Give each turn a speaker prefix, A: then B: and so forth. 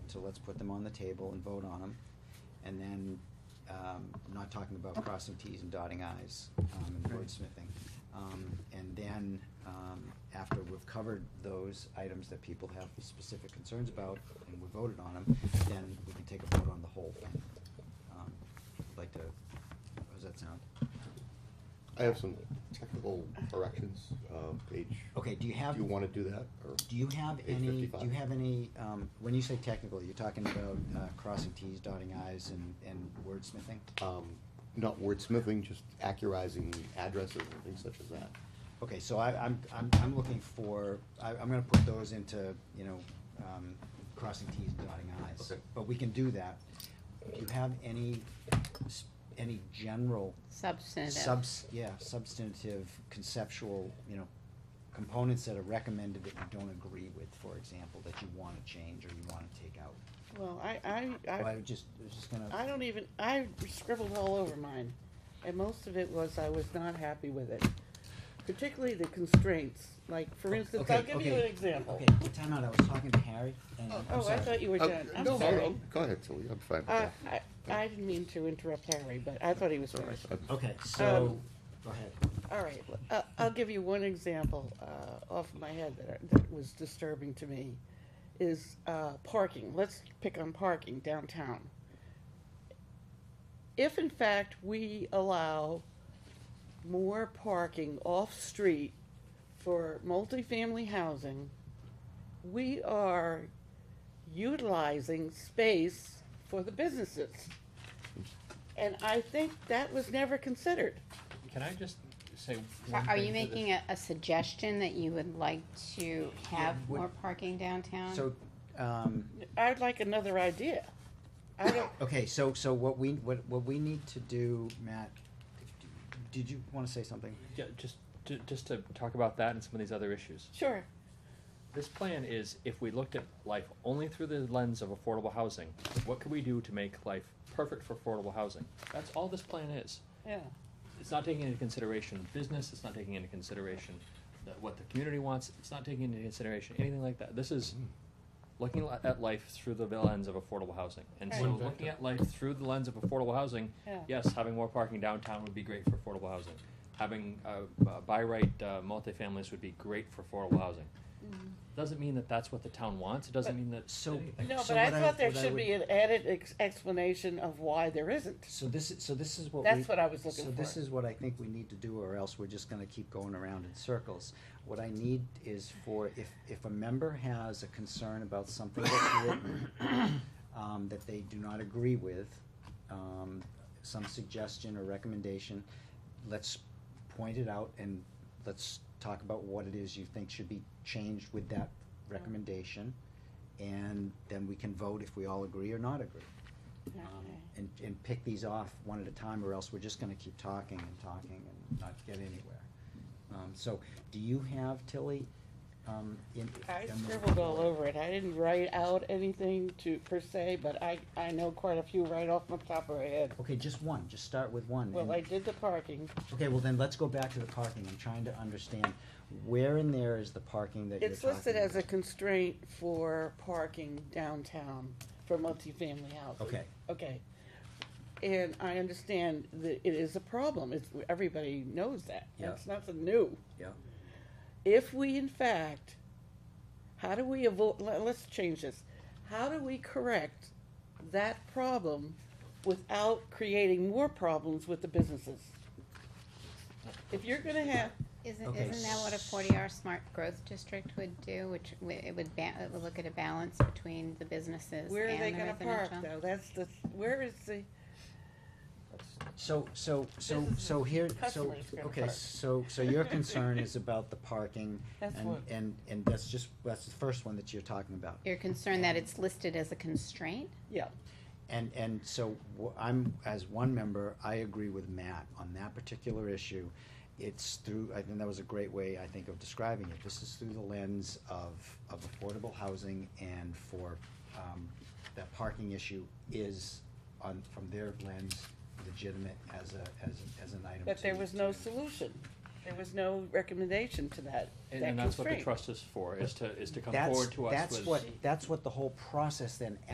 A: so let's put them on the table and vote on them. And then, um, I'm not talking about crossing Ts and dotting Is, um, and
B: Right.
A: wordsmithing. Um, and then, um, after we've covered those items that people have specific concerns about and we voted on them, then we can take a vote on the whole thing. Um, I'd Like to, how does that sound?
C: I have some technical corrections, uh, page.
A: Okay, do you have-
C: Do you wanna do that, or?
A: Do you have
C: Page
A: any, do
C: 55.
A: you have any, um, when you say technical, you're talking about, uh, crossing Ts, dotting Is and, and wordsmithing?
C: Um, not wordsmithing, just accurizing addresses and things such as that.
A: Okay, so I, I'm, I'm, I'm looking for, I, I'm gonna put those into, you know, um, crossing Ts and dotting Is.
C: Okay.
A: But we can do that. Do you have any, s- any general
D: Substantive.
A: subs, yeah, substantive, conceptual, you know, components that are recommended that you don't agree with, for example, that you wanna change or you wanna take out?
D: Well, I, I,
A: Well, I
D: I,
A: was just, I was just gonna.
D: I don't even, I scribbled all over mine, and most of it was I was not happy with it. Particularly the constraints, like, for instance, I'll
A: Okay,
D: give you an
A: okay,
D: example.
A: Okay, time out, I was talking to Harry, and I'm
D: Oh, I
A: sorry.
D: thought you were
C: Uh,
D: done, I'm
C: no,
D: sorry.
C: no, Go ahead, Tilly, I'm fine with
D: Uh,
C: that.
D: I, I didn't mean to interrupt Harry, but I thought he was
C: It's all right.
D: finished.
C: I'm-
A: Okay, so,
D: Um,
A: go ahead.
D: All right, uh, I'll give you one example uh, off my head that, that was disturbing to me, is uh, parking. Let's pick on parking downtown. If in fact we allow more parking off-street for multifamily housing, we are utilizing space for the businesses. And I think that was never considered.
E: Can I just say
F: So
E: one
F: Are
E: thing
F: you
E: to this?
F: making a, a suggestion that you would like to have
A: would-
F: more parking downtown?
A: So, um,
D: I'd like another idea. I don't,
A: okay, so, so what we, what, what we need to do, Matt, did you wanna say something?
E: Yeah, just, ju- just to talk about that and some of these other issues.
D: sure,
E: This plan is, if we looked at life only through the lens of affordable housing, what could we do to make life perfect for affordable housing? That's all this plan is.
D: yeah.
E: It's not taking into consideration business, it's not taking into consideration the- what the community wants, it's not taking into consideration anything like that. This is looking li- at life through the lens of affordable housing. And so
D: Right.
E: looking at life through the lens of affordable housing,
D: Yeah.
E: yes, having more parking downtown would be great for affordable housing. Having, uh, uh, by right, uh, multifamilies would be great for affordable housing. Doesn't mean that that's what the town wants, it doesn't
D: Mm-hmm. But-
E: mean that.
A: So-
E: anything.
D: No,
A: So
D: but I
A: what I-
D: thought there
A: what I
D: should
A: would-
D: be an added ex- explanation of why there isn't.
A: So this is, so this is what we.
D: That's what I was looking
A: So this
D: for.
A: is what I think we need to do, or else we're just gonna keep going around in circles. What I need is for, if, if a member has a concern about something that's written, um, that they do not agree with, um, some suggestion or recommendation, let's point it out and let's talk about what it is you think should be changed with that
D: Mm-hmm.
A: recommendation. And then we can vote if we all agree or not agree um,
D: Okay.
A: and, and pick these off one at a time, or else we're just gonna keep talking and talking and not get anywhere. Um, so, do you have, Tilly, um, in?
D: I
A: in the-
D: scribbled all over it. I didn't write out anything to, per se, but I, I know quite a few right off the top of my head.
A: Okay, just one, just start with one.
D: Well,
A: and-
D: I did the parking.
A: Okay, well then, let's go back to the parking, I'm trying to understand, where in there is the parking that you're
D: It's
A: talking about?
D: listed as a constraint for parking downtown for multifamily housing.
A: Okay.
D: Okay. And I understand that it is a problem. It's, everybody knows that.
A: Yeah.
D: That's nothing new.
A: Yeah,
D: if we in fact, how do we avoid, let, us change this. How do we correct that problem without creating more problems with the businesses? If you're gonna have,
F: Isn't,
A: Okay,
F: isn't that what a forty R smart growth district would do, which, w- it would ba- it would look at a balance between the businesses and the
D: where are they
F: residential?
D: gonna park though? That's the, where is the,
A: so, so, so,
D: This is
A: so here, so,
D: customers gonna
A: okay,
D: park.
A: so, so your concern is about the parking,
D: That's
A: and,
D: one.
A: and, and that's just, that's the first one that you're talking about.
F: You're concerned that it's listed as a constraint?
D: yeah,
A: And, and so wh- I'm, as one member, I agree with Matt on that particular issue. It's through, I think that was a great way, I think, of describing it. This is through the lens of, of affordable housing and for, um, that parking issue is on, from their lens, legitimate as a, as, a- as an item.
D: but there
A: to-
D: was no
A: to-
D: solution. There was no recommendation to that,
E: And,
D: that
E: and that's what the
D: constraint.
E: trust is for, is to, is to come
A: That's-
E: forward to us with.
A: That's what, that's what the whole process then